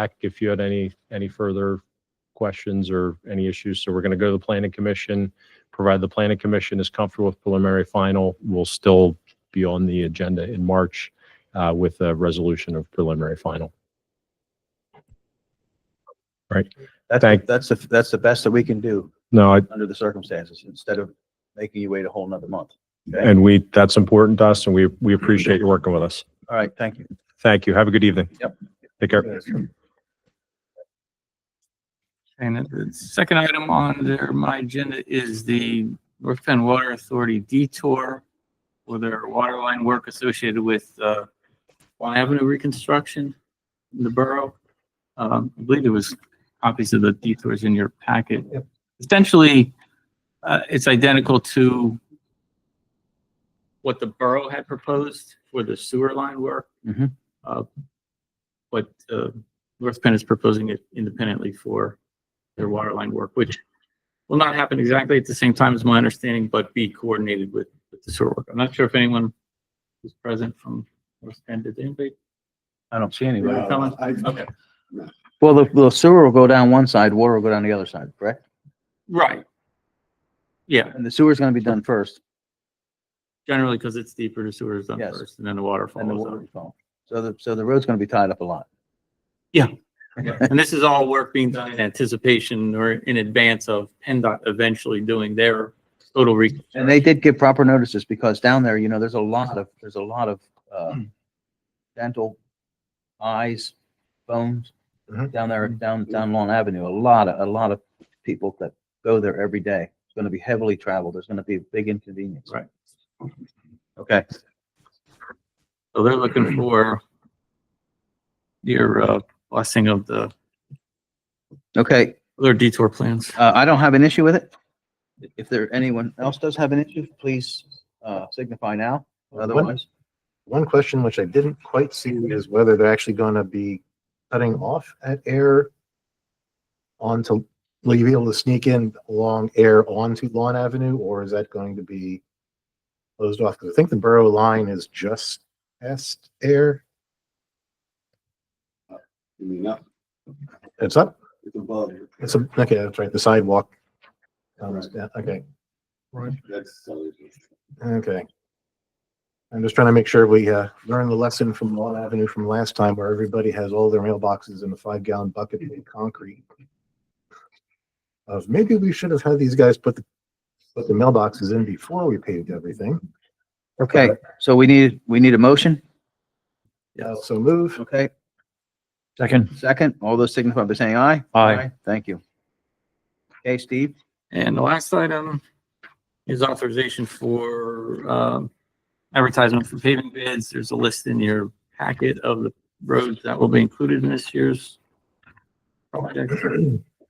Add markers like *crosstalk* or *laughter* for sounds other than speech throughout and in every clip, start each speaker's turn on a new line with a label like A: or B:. A: back if you had any, any further questions or any issues. So we're going to go to the planning commission, provide the planning commission is comfortable with preliminary final. We'll still be on the agenda in March uh, with a resolution of preliminary final.
B: That's,
A: Thank-
B: that's, the that's the best that we can do
A: No, I,
B: under the circumstances, instead of making you wait a whole nother month. Okay?
A: and we, that's important to us and we, we appreciate you working with us.
B: All right, thank you.
A: Thank you. Have a good evening.
B: Yep.
A: Take care.
C: And the second item on there, my agenda is the North Penn Water Authority detour for their water line work associated with, uh, Quan Avenue reconstruction in the borough. Um, I believe there was copies of the detours in your packet. Essentially, uh, it's identical to what the borough had proposed for the sewer line work.
B: Mhm.
C: Uh, But, uh, North Penn is proposing it independently for their water line work, which will not happen exactly at the same time as my understanding, but be coordinated with, with the sewer work. I'm not sure if anyone was present from North Penn. Did anybody?
B: I don't see anybody.
C: Someone? Okay.
B: Well, the, the sewer will go down one side, water will go down the other side, correct?
C: Right. Yeah,
B: And the sewer's gonna be done first,
C: generally because it's deeper, the sewer is done
B: Yes.
C: first and then the water
B: and the
C: follows.
B: water
C: on.
B: will follow. So the, so the road's gonna be tied up a lot.
C: And this is all work being done in anticipation or in advance of PennDOT eventually doing their total re.
B: And they did give proper notices because down there, you know, there's a lot of, there's a lot of, uh, dental eyes, bones
A: Mhm.
B: down there, down, down Long Avenue. A lot of, a lot of people that go there every day. It's going to be heavily traveled. There's going to be a big inconvenience.
C: Right.
B: Okay.
C: So they're looking for your, uh, blessing of the,
B: Okay.
C: their detour plans.
B: Uh, I don't have an issue with it. If there, anyone else does have an issue, please, uh, signify now. Otherwise,
D: One question which I didn't quite see is whether they're actually gonna be cutting off at air onto, will you be able to sneak in along air onto Lawn Avenue, or is that going to be closed off? Because I think the borough line is just past air.
E: I mean, up,
D: It's up,
E: it's above,
D: it's, a- okay, that's right, the sidewalk. comes down, Okay,
E: that's, so it's-
D: okay. I'm just trying to make sure we, uh, learn the lesson from Lawn Avenue from last time where everybody has all their mailboxes in a five gallon bucket made of concrete. Of maybe we should have had these guys put the, put the mailboxes in before we paved everything.
B: okay, so we need, we need a motion.
D: Yeah, uh, so move.
B: Okay.
A: Second.
B: Second, all those signify by saying aye.
A: Aye.
B: Thank you. Okay, Steve,
C: And the last item is authorization for um, advertisement for paving bids. There's a list in your packet of the roads that will be included in this year's project.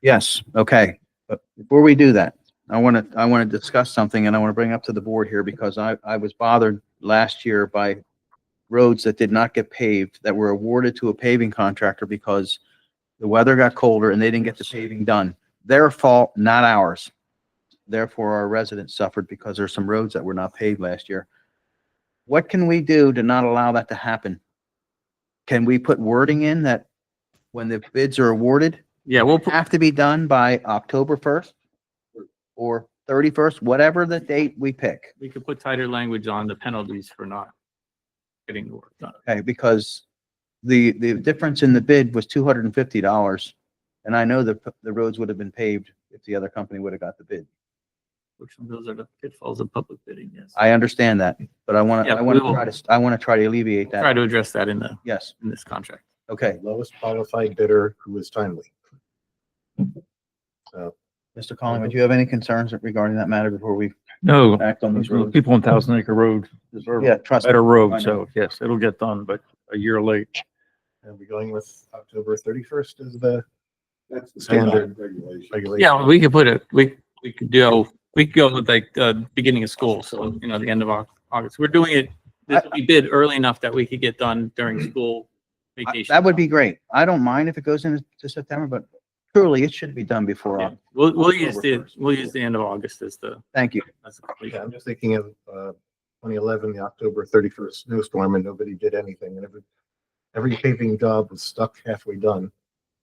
B: yes, okay. But before we do that, I want to, I want to discuss something and I want to bring up to the board here because I, I was bothered last year by roads that did not get paved, that were awarded to a paving contractor because the weather got colder and they didn't get the paving done. Their fault, not ours. Therefore, our residents suffered because there's some roads that were not paved last year. What can we do to not allow that to happen? Can we put wording in that when the bids are awarded,
C: Yeah, we'll, put-
B: have to be done by October first or thirty-first, whatever the date we pick,
C: we could put tighter language on the penalties for not getting the work done.
B: okay? Because the, the difference in the bid was two hundred and fifty dollars. And I know that the roads would have been paved if the other company would have got the bid.
C: Which those are the pitfalls of public bidding, yes.
B: I understand that, but I want to,
C: Yeah,
B: I want
C: we
B: to
C: will-
B: try to, I want to try to alleviate
C: Try
B: that.
C: to address that in the,
B: Yes,
C: in this contract.
B: okay.
D: Lowest qualified bidder who is timely.
B: Mr. Collins, do you have any concerns regarding that matter before we
F: No,
B: act on these roads?
F: people on Thousand Acre Road deserve
B: Yeah,
F: a
B: trust me.
F: better
B: I
F: road,
B: know.
F: so yes, it'll get done, but a year late.
D: Are we going with October thirty-first as the
E: that's the
D: Standard.
E: standard regulation.
D: regulation?
C: Yeah, we could put it, we, we could do, we could go with like, uh, beginning of school, so, you know, the end of Au- August. We're doing it, this we bid early enough that we could get done
B: *clears throat*
C: during school
B: I-
C: vacation.
B: That would be great. I don't mind if it goes into to September, but truly it should be done before.
C: Yeah.
B: Oc-
C: We'll, we'll use the,
D: October first.
C: we'll use the end of August as the,
B: Thank you.
C: as the completion.
D: Yeah, I'm just thinking of, uh, twenty eleven, the October thirty-first snowstorm and nobody did anything and every, every paving job was stuck halfway done.